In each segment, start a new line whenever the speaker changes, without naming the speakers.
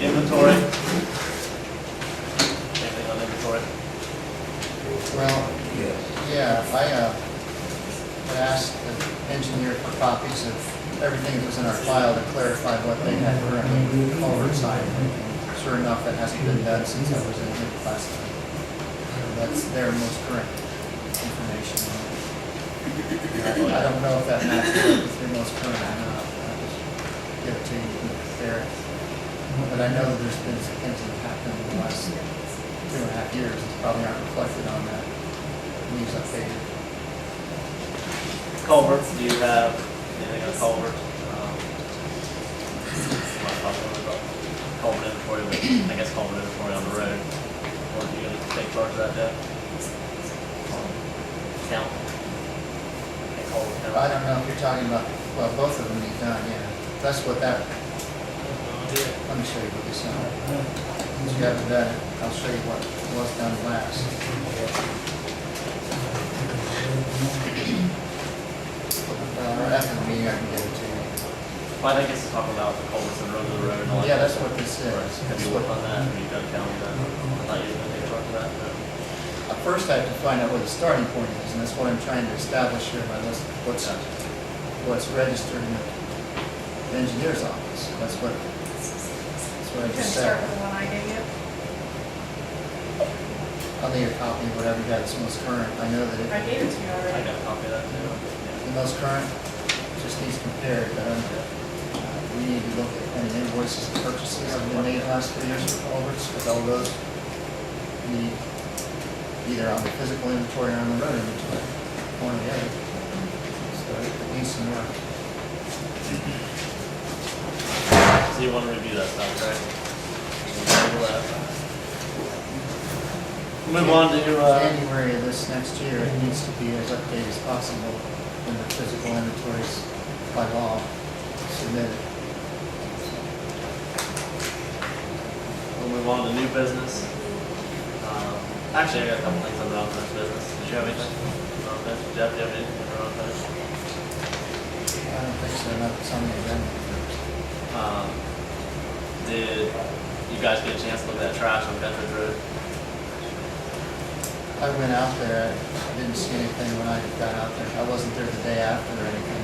Inventory. Anything on inventory?
Well,
Yes.
yeah, I, uh, had asked the engineer for copies of everything that was in our file to clarify what they had currently oversight. Sure enough, that hasn't been done since I was in here last time. So That's their most current information. I don't know if that matches with their most current or not. I'll just Give it to you there. But I know that there's been some things that have happened in the last two and a half years, it's probably not reflected on that news update.
Culvert, do you have anything on culvert? Um, might talk a little about Culvert inventory, but I guess culvert inventory on the road. Or do you take charge of that debt? Um, Count? And culvert count?
I don't know if you're talking about, well, both of them need done, yeah. That's what that, let me show you what this is. Since you haven't done it, I'll show you what was done last. Uh, Or after the meeting, I can give it to you.
Well, I think it's talking about the culverts and road to the road and all that.
Yeah, that's what this is.
Have
That's
you
what-
worked on that, have you done counting that? I thought you were gonna take charge of that, but.
Uh, First, I have to find out what the starting point is, and that's what I'm trying to establish here by list, what's, what's registered in the engineer's office. That's what, that's what I
Can
just
start
said.
with the one I gave you?
I'll need a copy of whatever you got that's most current. I know that
I
it-
gave it to you
I
already.
got a copy of that too. Yeah.
the most current just needs compared, but um, uh, we need to look at any invoices and purchases that have been made last three years for culverts, because all those need either on the physical inventory or on the road inventory, one or the other. So it needs some work.
So you want to review that stuff, right? We'll table that. Move on to, uh,
January of this next year, it needs to be as updated as possible when the physical inventories by law submitted.
we'll move on to new business. Um, Actually, I got a couple things on the unfinished business. Did you have anything? on unfinished? Jeff, do you have anything on unfinished?
I don't think so, not some of them.
Um, Did you guys get a chance to look at that trash on Bedford Road?
I went out there, I didn't see anything when I got out there. I wasn't there the day after or anything.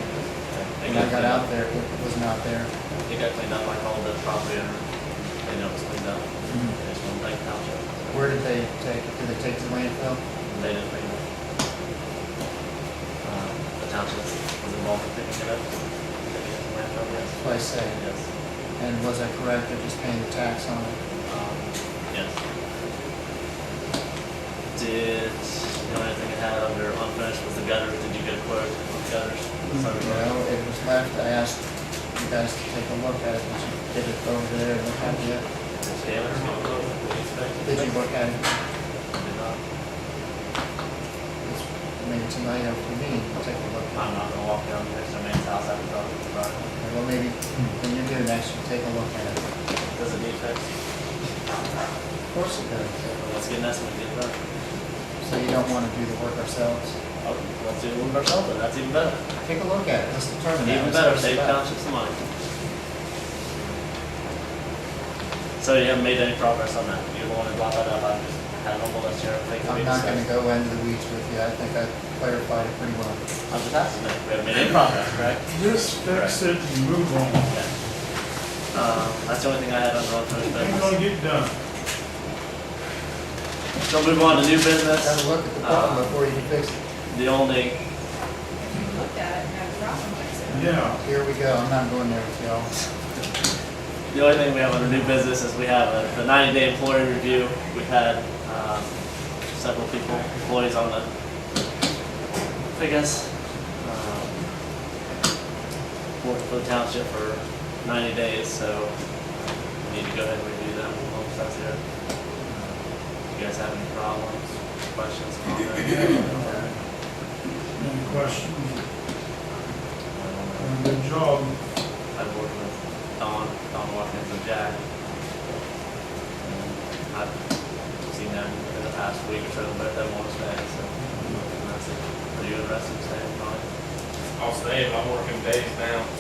They
When I got
cleaned up.
out there, it wasn't out there.
It got cleaned up. I called the property owner. They know it was cleaned up. They just want to thank township.
Where did they take, did they take the landfill?
They didn't bring it. Um, The township was involved in picking it up. Taking it to landfill, yes.
Place say,
Yes.
and was I correct, they're just paying the tax on it?
Um, Yes. Did, the only thing I had under unfinished was the gutters. Did you get a quote on the gutters? Sorry, Brian.
Well, it was left, I asked you guys to take a look at it, did you get it over there and look at it yet?
Taylor, what do you expect?
Did you look at it?
Did not.
It's- Maybe tonight after the meeting, we'll take a look at it.
I'm not gonna walk down next to a man's house after talking to Brian.
Well, maybe when you do next, you take a look at it.
Does it need fixed?
Of course it does.
Let's get an estimate, get that.
So you don't want to do the work ourselves?
Oh, Let's do it with ourselves, then. that's even better.
Take a look at it, let's determine
Even
that. Let's
better,
see
save
about it.
township some money. So you haven't made any progress on that? You don't want to block that up, I just had a whole list here, I think we
I'm not going to
discussed.
go into the weeds with you, I think I clarified it pretty well.
I'm just asking, if we haven't made any progress, correct?
Just fix it and move on.
Okay. Um, that's the only thing I had on the unfinished
Ain't gonna
business.
get done.
So move on to new
Have a
business,
look at the problem
Uh,
before you can fix it.
the only,
If you looked at it and had a problem with it.
Yeah.
Here we go, I'm not going there with y'all.
the only thing we have under new business is we have a- the ninety day employee review. We've had, um, several people, employees on the, I guess, um, worked for the township for ninety days, so we need to go ahead and review them, hope that's there. You guys have any problems, questions, comments?
Any questions? Done a Good job.
I've worked with Don, Don Watkins and Jack. And I've seen them in the past week or so, but them want to stay, so. and that's it. Are you interested in staying, Don?
I'll stay, I'm working days now.